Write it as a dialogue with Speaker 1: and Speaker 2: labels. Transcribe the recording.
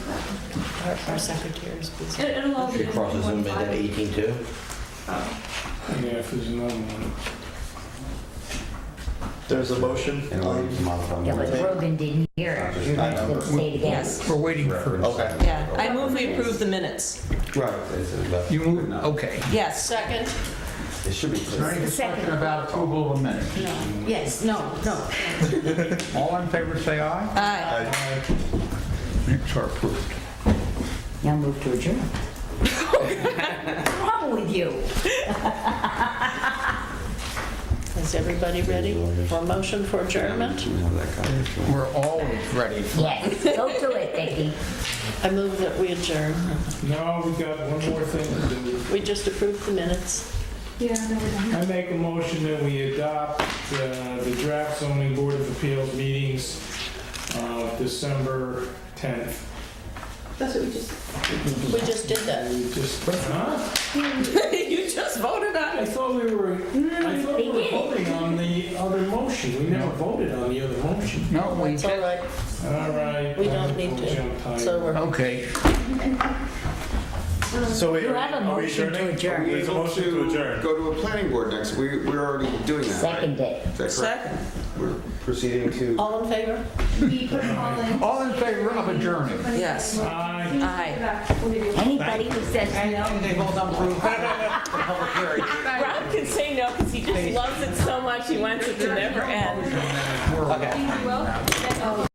Speaker 1: Our our secretary is busy.
Speaker 2: It- It'll all be.
Speaker 3: She crosses them at
Speaker 2: in
Speaker 3: 18 too?
Speaker 2: Oh,
Speaker 4: Yeah, if there's another one.
Speaker 5: There's a motion.
Speaker 3: And leaves them out from
Speaker 6: Yeah, but
Speaker 3: the-
Speaker 6: Rogan didn't hear it. You're
Speaker 3: I
Speaker 6: not
Speaker 3: know.
Speaker 6: gonna say it again.
Speaker 1: Yes.
Speaker 7: We're waiting for,
Speaker 5: Okay.
Speaker 1: Yeah, I move we approve the minutes.
Speaker 3: Right. it's a left.
Speaker 7: you move, okay.
Speaker 1: Yes.
Speaker 2: second?
Speaker 3: It should be clear.
Speaker 6: The
Speaker 8: Talking
Speaker 6: second,
Speaker 8: about approval of minutes.
Speaker 6: no, yes, no, no.
Speaker 8: All in favor, say aye.
Speaker 1: Aye.
Speaker 8: Minutes are approved.
Speaker 6: Now move to adjourn. What's wrong with you?
Speaker 1: Is everybody ready for motion for adjournment?
Speaker 3: You have that copy if you want.
Speaker 7: We're always ready.
Speaker 6: Yes, go to it, Vicky.
Speaker 1: I move that we adjourn.
Speaker 4: No, we got one more thing to do.
Speaker 1: We just approved the minutes.
Speaker 2: Yeah, no, we don't.
Speaker 4: I make a motion that we adopt uh, the draft zoning board of appeals meetings of December 10th.
Speaker 2: That's what we just.
Speaker 1: We just did that.
Speaker 4: We just, huh?
Speaker 1: You just voted on
Speaker 4: I thought we were,
Speaker 1: Mm,
Speaker 4: I thought we were voting on the other motion. We never voted on the other motion.
Speaker 7: No, we
Speaker 1: It's all
Speaker 7: did.
Speaker 1: right,
Speaker 4: All right.
Speaker 1: We don't need to.
Speaker 4: I'm tired.
Speaker 1: so we're,
Speaker 7: Okay.
Speaker 5: So wait,
Speaker 6: You
Speaker 5: are we-
Speaker 6: have a
Speaker 5: are we
Speaker 6: motion to
Speaker 5: adjourning?
Speaker 6: adjourn.
Speaker 5: There's a motion to adjourn.
Speaker 3: Go to a planning board next, we, we're already doing that, right?
Speaker 6: Second it.
Speaker 3: Is that correct?
Speaker 1: second.
Speaker 3: We're proceeding to.
Speaker 1: All in favor?
Speaker 8: We put them all in. All in favor of adjourning.
Speaker 1: Yes.
Speaker 4: Aye.
Speaker 1: Aye.
Speaker 6: Anybody who says
Speaker 8: I know, they both approved. Public hearing.
Speaker 9: Rob can say no because he just loves it so much he wants it to never end.
Speaker 8: We're-
Speaker 9: You will?